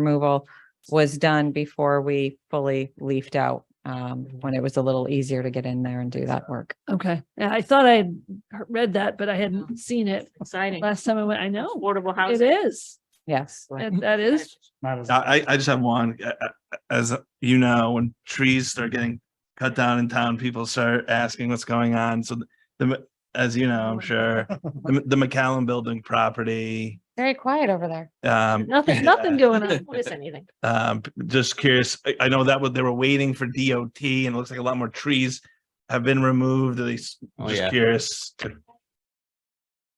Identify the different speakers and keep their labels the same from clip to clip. Speaker 1: removal was done before we fully leafed out, um, when it was a little easier to get in there and do that work.
Speaker 2: Okay, Yeah, I thought I had heard- read that, but I hadn't seen it
Speaker 3: Exciting.
Speaker 2: last time I went. I know,
Speaker 3: Affordable
Speaker 2: it
Speaker 3: housing.
Speaker 2: is.
Speaker 1: Yes.
Speaker 2: That that is,
Speaker 4: I, I just have one, Uh, uh, as you know, when trees start getting cut down in town, people start asking what's going on, so the, as you know, I'm sure, the the McCallum Building property,
Speaker 1: Very quiet over there.
Speaker 4: um.
Speaker 2: nothing, nothing going on.
Speaker 3: What is anything?
Speaker 4: Um, just curious, I, I know that what they were waiting for DOT and it looks like a lot more trees have been removed, at least,
Speaker 5: Oh,
Speaker 4: just
Speaker 5: yeah.
Speaker 4: curious.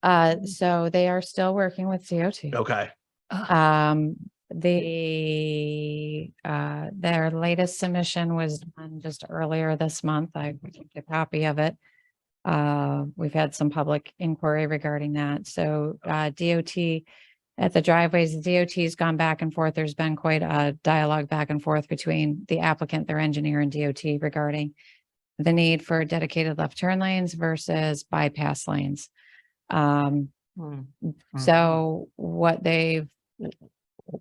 Speaker 1: Uh, so they are still working with DOT.
Speaker 4: Okay,
Speaker 3: Uh,
Speaker 2: Ah,
Speaker 1: Um, the, uh, their latest submission was done just earlier this month. I kept a copy of it. Uh, we've had some public inquiry regarding that. So, uh, DOT at the driveways, the DOT's gone back and forth. There's been quite a dialogue back and forth between the applicant, their engineer and DOT regarding the need for dedicated left turn lanes versus bypass lanes. Um,
Speaker 4: Mm-hmm.
Speaker 1: so what they've,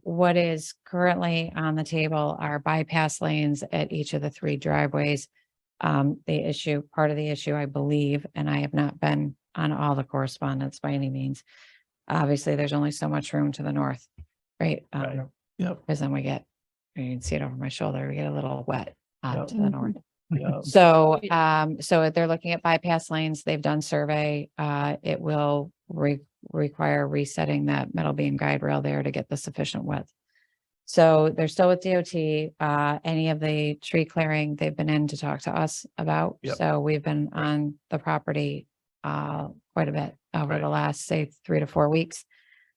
Speaker 1: what is currently on the table are bypass lanes at each of the three driveways. Um, the issue, part of the issue, I believe, and I have not been on all the correspondence by any means. Obviously, there's only so much room to the north, right? Um,
Speaker 4: Right. Yep.
Speaker 1: Cause then we get, you can see it over my shoulder, we get a little wet uh,
Speaker 4: Yep.
Speaker 1: to the north.
Speaker 4: yeah,
Speaker 1: So,
Speaker 2: Okay.
Speaker 1: um, so they're looking at bypass lanes. They've done survey. Uh, it will re- require resetting that metal beam guide rail there to get the sufficient width. So they're still with DOT, uh, any of the tree clearing they've been in to talk to us about.
Speaker 4: Yep.
Speaker 1: So we've been on the property, uh, quite a bit over the
Speaker 4: Right.
Speaker 1: last, say, three to four weeks.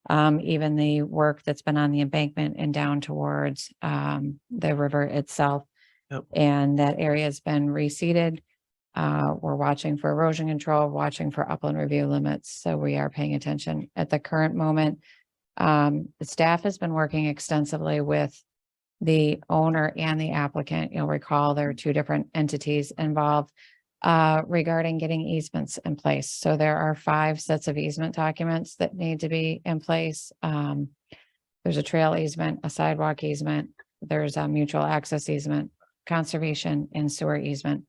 Speaker 1: Um, even the work that's been on the embankment and down towards, um, the river itself.
Speaker 4: Yep.
Speaker 1: And that area's been reseeded. Uh, we're watching for erosion control, watching for upland review limits, so we are paying attention. At the current moment, um, the staff has been working extensively with the owner and the applicant. You'll recall there are two different entities involved uh, regarding getting easements in place. So there are five sets of easement documents that need to be in place. Um, there's a trail easement, a sidewalk easement, there's a mutual access easement, conservation and sewer easement.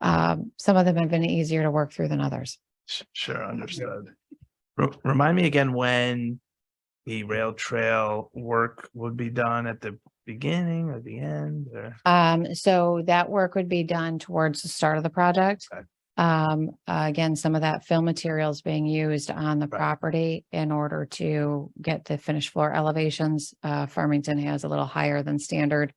Speaker 1: Um, some of them have been easier to work through than others.
Speaker 4: s- sure, understood. Re- Remind me again when the rail trail work would be done at the beginning or the end or?
Speaker 1: Um, so that work would be done towards the start of the project.
Speaker 4: Okay.
Speaker 1: Um, uh, again, some of that fill materials being used on the
Speaker 4: Right.
Speaker 1: property in order to get the finished floor elevations. Uh, Farmington has a little higher than standard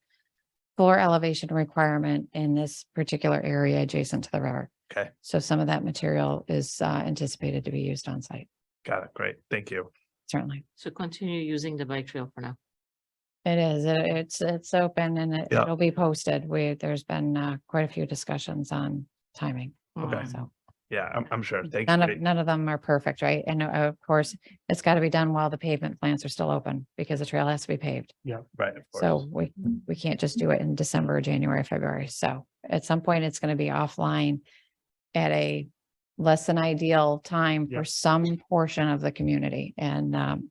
Speaker 1: floor elevation requirement in this particular area adjacent to the river.
Speaker 4: Okay.
Speaker 1: So some of that material is uh, anticipated to be used on site,
Speaker 4: Got it, great, thank you.
Speaker 1: certainly.
Speaker 3: So continue using the bike trail for now.
Speaker 1: It is, it- it's, it's open and it-
Speaker 4: Yeah.
Speaker 1: it'll be posted. We, there's been uh, quite a few discussions on timing.
Speaker 4: Okay.
Speaker 1: So
Speaker 4: Yeah, I'm, I'm sure, thank
Speaker 1: none of,
Speaker 4: you.
Speaker 1: none of them are perfect, right? And uh, of course, it's got to be done while the pavement plants are still open because the trail has to be paved.
Speaker 4: Right, of course,
Speaker 1: So we, we can't just do it in December, January, February. So at some point, it's going to be offline at a less than ideal time
Speaker 4: Yeah.
Speaker 1: for some portion of the community. And um,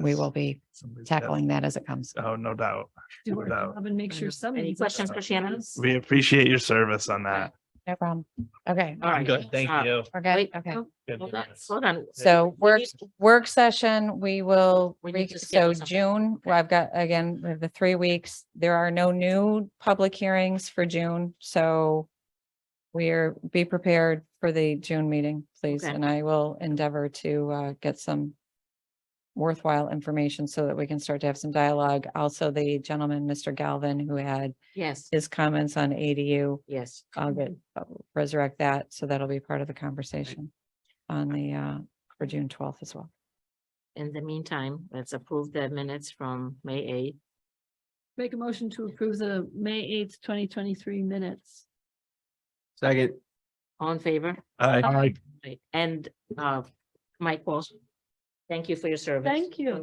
Speaker 1: we
Speaker 4: yes.
Speaker 1: will be
Speaker 4: Somebody's got-
Speaker 1: tackling that as it comes.
Speaker 4: Oh, no doubt.
Speaker 2: Do our
Speaker 4: Without-
Speaker 2: job and make sure someone.
Speaker 3: Mm. Any questions for Shannon?
Speaker 4: We appreciate your service on that.
Speaker 1: No problem. Okay,
Speaker 3: All right.
Speaker 4: Good, thank
Speaker 3: Uh,
Speaker 4: you.
Speaker 1: we're good.
Speaker 3: Wait,
Speaker 1: Okay.
Speaker 3: no,
Speaker 4: Good.
Speaker 3: hold on, Hold on.
Speaker 1: So
Speaker 3: We
Speaker 1: work,
Speaker 3: need-
Speaker 1: work session, we will,
Speaker 3: We
Speaker 1: re-
Speaker 3: need to schedule
Speaker 1: so
Speaker 3: something.
Speaker 1: June, well, I've got, again, we have the three weeks, there are no new public hearings for June, so we're, be prepared for the June meeting, please,
Speaker 3: Okay.
Speaker 1: and I will endeavor to uh, get some worthwhile information so that we can start to have some dialogue. Also, the gentleman, Mr. Galvin, who had
Speaker 3: Yes,
Speaker 1: his comments on ADU,
Speaker 3: yes.
Speaker 1: I'll get, I'll resurrect that, so that'll be part of the conversation on the, uh, for June twelfth as well.
Speaker 3: In the meantime, let's approve the minutes from May eighth.
Speaker 2: Make a motion to approve the May eighth, twenty twenty-three minutes.
Speaker 5: Second.
Speaker 3: All in favor?
Speaker 4: Aye.
Speaker 3: Right. And uh, Michael, thank you for your service.
Speaker 2: Thank you.